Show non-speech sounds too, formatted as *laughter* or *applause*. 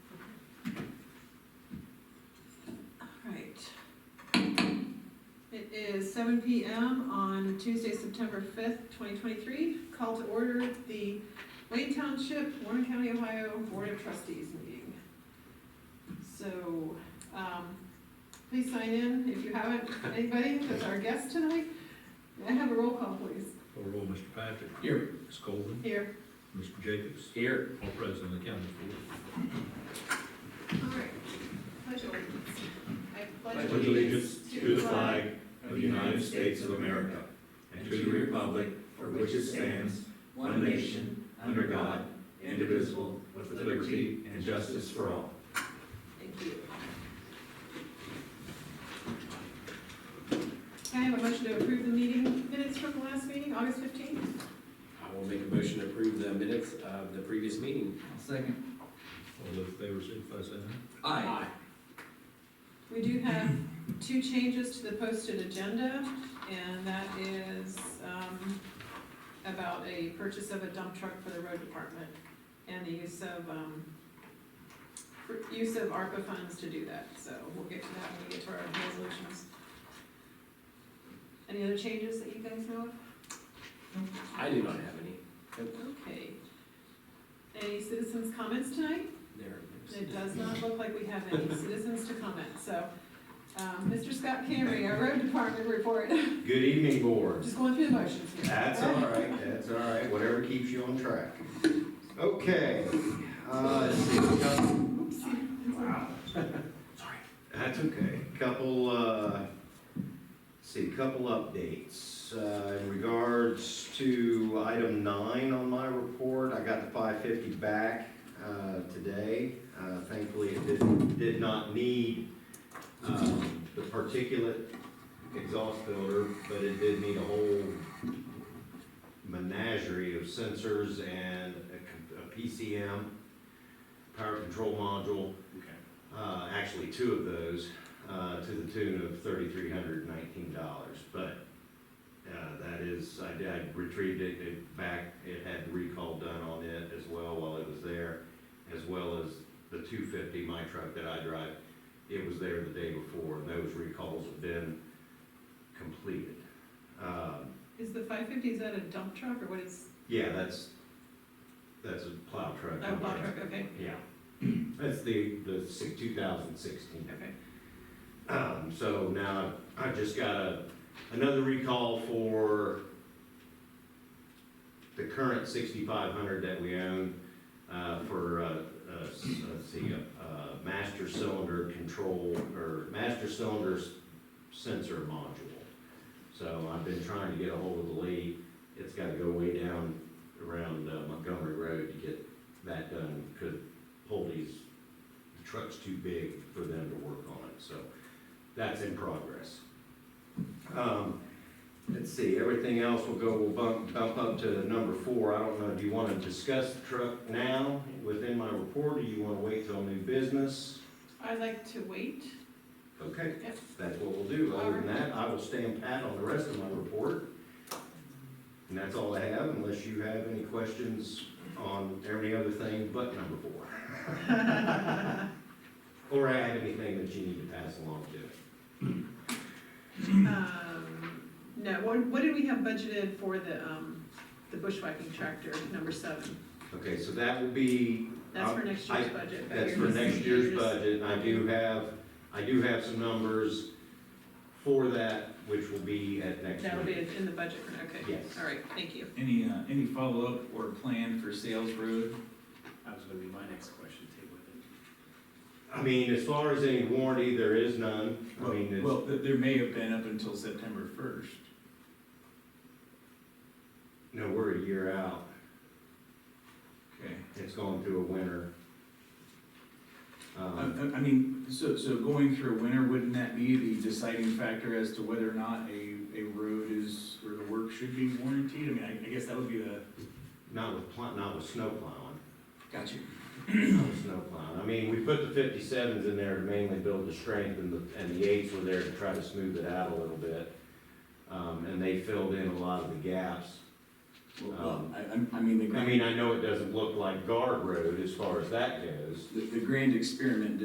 is seven P M on Tuesday, September fifth, twenty twenty-three. Call to order the Wayne Township, Warren County, Ohio Board of Trustees meeting. So, um, please sign in if you haven't, anybody that's our guest tonight. May I have a roll call, please? Call roll, Mr. Patrick. Here. Ms. Colvin. Here. Mr. Jacobs. Here. All present on the county board. All right. Pledge allegiance. I Pledge pledge allegiance to the flag of of the United States of America and to the republic for which it stands, one nation, under God, indivisible, with liberty and justice for all. Thank you. Can I have a motion to approve the meeting minutes from the last meeting, August fifteenth? I will make a motion to approve the minutes of the previous meeting. Second. All those in favor, signify by saying aye. Aye. We do have two changes to the posted agenda, and that is, um, about a purchase of a dump truck for the road department and the use of, um, for- use of ARPA funds to do that, so we'll get to that when we get to our resolutions. Any other changes that you guys know of? I do not have any. Okay. Any citizens' comments tonight? There it It is. does not look like we have any citizens to comment, so. um, Mr. Scott Camry, our road department report, Good evening, board. just going through the motions here. That's all right, that's all right, whatever keeps you on track. Okay, uh, let's see, we got- Wow. Sorry. That's okay. Couple, uh, let's see, couple updates. Uh, in regards to item nine on my report, I got the five fifty back, uh, today. Uh, thankfully, it did, did not need, um, the particulate exhaust filter, but it did need a whole menagerie of sensors and a- a PCM, power control module, uh, actually two of those, uh, to the tune of thirty-three hundred nineteen dollars, but, uh, that is, I did, I retrieved it, it back, it had the recall done on it as well while it was there, as well as the two fifty, my truck that I drive, it was there the day before, and those recalls have been completed. Um, Is the five fifty, is that a dump truck or what is, yeah, that's, that's a plow truck. oh, plow truck, okay, Yeah, *clears throat* that's the, the six, two thousand sixteen. okay. Um, so now I've just got a, another recall for the current sixty-five hundred that we own, uh, for, uh, uh, s- let's see, uh, uh, master cylinder control, or master cylinder s- sensor module. So I've been trying to get a hold of the lead, it's gotta go way down around uh, Montgomery Road to get that done, could, Holdy's, the truck's too big for them to work on it, so that's in progress. Um, Let's see, everything else will go, will bump, bump up to number four. I don't know, do you want to discuss the truck now within my report, or you want to wait till new business? I'd like to wait. Okay, Yep. that's what we'll do. Other than that, I will stand pat on the rest of my report. And that's all I have, unless you have any questions on every other thing but number four. Or I have anything that you need to pass along to. Um, No, what, what did we have budgeted for the, um, the bushwhacking tractor, number seven? Okay, so that will be That's for Um, next I- year's budget. but That's you're for just- next you're year's just- budget, and I do have, I do have some numbers for that, which will be at next That'll be meeting. in the budget, okay. Yes. All right, thank you. Any, uh, any follow-up or plan for Sales Road? That was gonna be my next question, too, with I mean, as far as any warranty, there is none, I mean, it's, Well, th- there may have been up until September first. no, we're a year out, Okay. it's going through a winter. I, Um, I I mean, so, so going through a winter, wouldn't that be the deciding factor as to whether or not a, a road is, or the work should be warranted? I mean, I, I guess that would be the. not with, pl- not with snow plowing, Gotcha. not with snow plowing, I mean, we put the fifty-sevens in there to mainly build the strength, and the, and the eights were there to try to smooth it out a little bit. Um, and they filled in a lot of the gaps, Well, I, I'm- I mean, the I grand, mean, I know it doesn't look like guard road as far as that goes. the, the grand experiment